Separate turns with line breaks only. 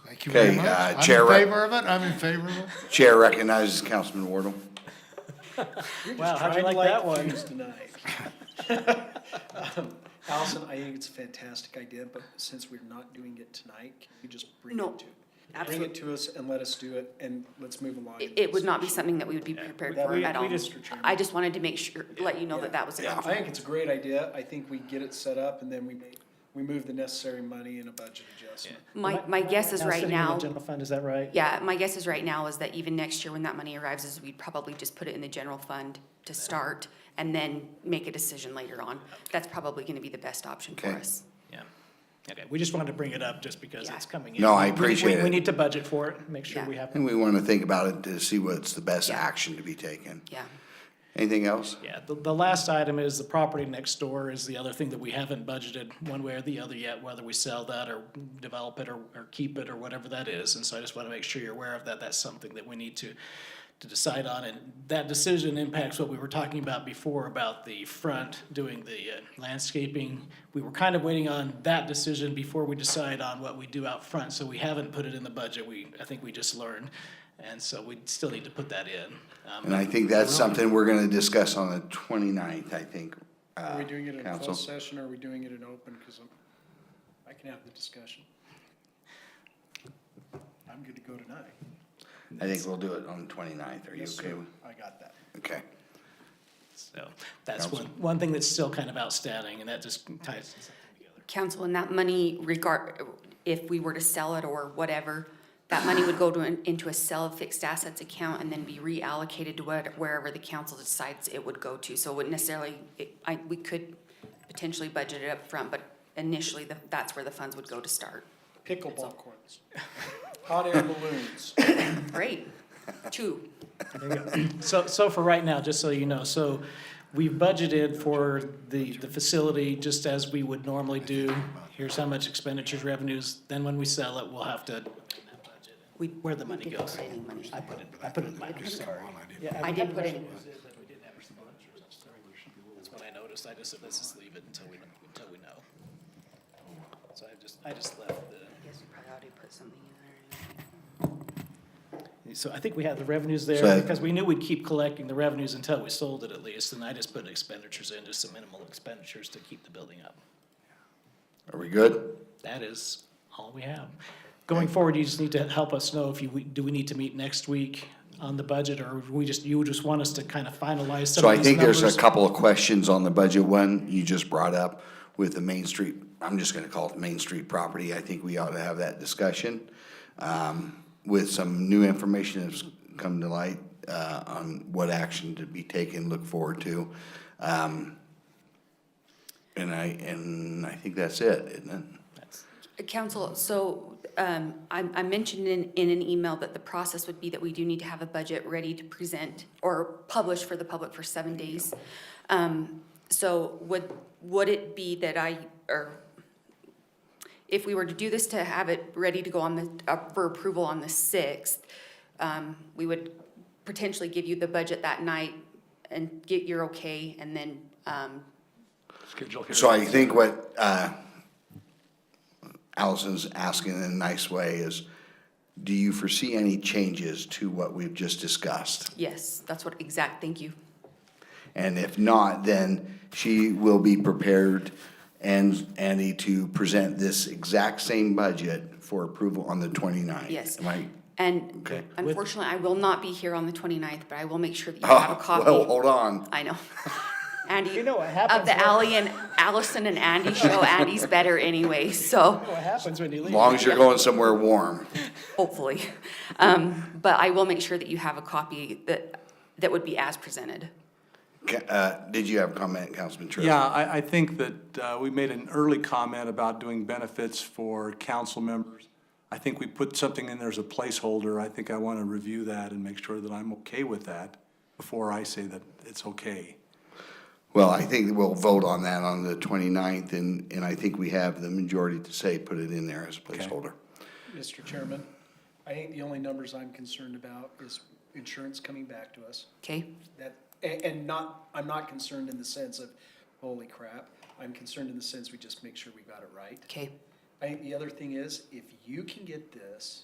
Thank you very
Okay,
much.
uh, Chair Ra-
I'm in favor of it, I'm in favor of it.
Chair recognizes Councilman Wardle.
Wow, how'd you
Trying to
like that one?
things tonight. Um, Allison, I think it's a fantastic idea, but since we're not doing it tonight, can you just bring
No,
it to? Bring it to us and let us do it, and let's move along.
It, it would not be something that we would be prepared
That
for
we-
at
we
all.
just- Mr. Chairman.
I just wanted to make sure, let you know
Yeah.
that that was a
Yeah.
I
conflict.
think it's a great idea. I think we get it set up, and then we make, we move the necessary money in a budget adjustment.
My, my guess is right
sitting in the
now,
General fund, is that right?
yeah, my guess is right now is that even next year when that money arrives is we'd probably just put it in the general fund to start and then make a decision later on. That's probably gonna be the best option for
Okay.
us.
Yeah. Okay, we just wanted to bring it up just because
Yeah.
it's coming in.
No, I
We- we-
appreciate
We
it.
need to budget for it, make sure
Yeah.
we have,
And we want to think about it to see what's the best
Yeah.
action to be taken.
Yeah,
Anything else?
yeah. The, the last item is the property next door is the other thing that we haven't budgeted one way or the other yet, whether we sell that or develop it or, or keep it or whatever that is. And so I just want to make sure you're aware of that. That's something that we need to, to decide on. And that decision impacts what we were talking about before about the front doing the uh, landscaping. We were kind of waiting on that decision before we decide on what we do out front. So we haven't put it in the budget. We, I think we just learned. And so we still need to put that in. Um,
And I think that's something we're going to discuss on the 29th, I think.
Are we
uh,
doing it in a
Council.
closed session, or are we doing it in open? Because I'm, I can have the discussion. I'm good to go tonight.
I think we'll do it on the 29th. Are you
Yes,
okay
sir.
with?
I got that.
Okay.
So that's one, one thing that's still kind of outstanding, and that just ties something together.
council, and that money regard, if we were to sell it or whatever, that money would go to, an- into a sell of fixed assets account and then be reallocated to what, wherever the council decides it would go to. So it wouldn't necessarily, it, I, we could potentially budget it up front, but initially, the- that's where the funds would go to start.
Pickleball courts, hot air balloons.
Great, two,
So, so for right now, just so you know, so we've budgeted for the, the facility just as we would normally do. Here's how much expenditures, revenues, then when we sell it, we'll have to,
we.
where the money
we didn't
goes.
put any money
I
there.
put it, I put it in my, sorry. Yeah,
I did put it,
That's what I noticed, I just said, let's just leave it until we, until we know. So I just, I just left the.
yes, we probably ought to put something in there.
So I think we had the revenues
So-
there, because we knew we'd keep collecting the revenues until we sold it at least, and I just put expenditures in, just some minimal expenditures to keep the building up.
Are we good?
That is all we have. Going forward, you just need to help us know if you, we- do we need to meet next week on the budget, or we just, you just want us to kind of finalize some
So I
of these
think there's a
numbers?
couple of questions on the budget one you just brought up with the Main Street. I'm just gonna call it Main Street property. I think we ought to have that discussion. Um, with some new information that's come to light, uh, on what action to be taken, look forward to. Um, and I, and I think that's it, isn't it?
That's-
Uh, Council, so um, I I mentioned in, in an email that the process would be that we do need to have a budget ready to present or publish for the public for seven days. Um, So would, would it be that I, or if we were to do this, to have it ready to go on the, up for approval on the 6th, um, we would potentially give you the budget that night and get your okay, and then um,
Schedule here.
So I think what uh, Allison's asking in a nice way is, do you foresee any changes to what we've just discussed?
yes, that's what, exact, thank you.
And if not, then she will be prepared and Andy to present this exact same budget for approval on the 29th.
Yes.
Am I-
And
Okay.
unfortunately, I will not be here on the 29th, but I will make sure that you have a
Oh,
copy.
well, hold on.
I know. Andy.
You know what happens
Of the
when-
Ally and Allison and Andy show, Andy's better anyway, so
What happens when you leave?
Long as you're going somewhere warm.
hopefully. Um, But I will make sure that you have a copy that, that would be as presented.
Ca- uh, Did you have a comment, Councilman True?
Yeah, I, I think that uh, we made an early comment about doing benefits for council members. I think we put something in there as a placeholder. I think I want to review that and make sure that I'm okay with that before I say that it's okay.
Well, I think we'll vote on that on the 29th, and, and I think we have the majority to say, put it in there as a placeholder.
Mr. Chairman, I think the only numbers I'm concerned about is insurance coming back to us.
Okay?
That, and, and not, I'm not concerned in the sense of, holy crap. I'm concerned in the sense we just make sure we got it right.
Okay.
I think the other thing is, if you can get this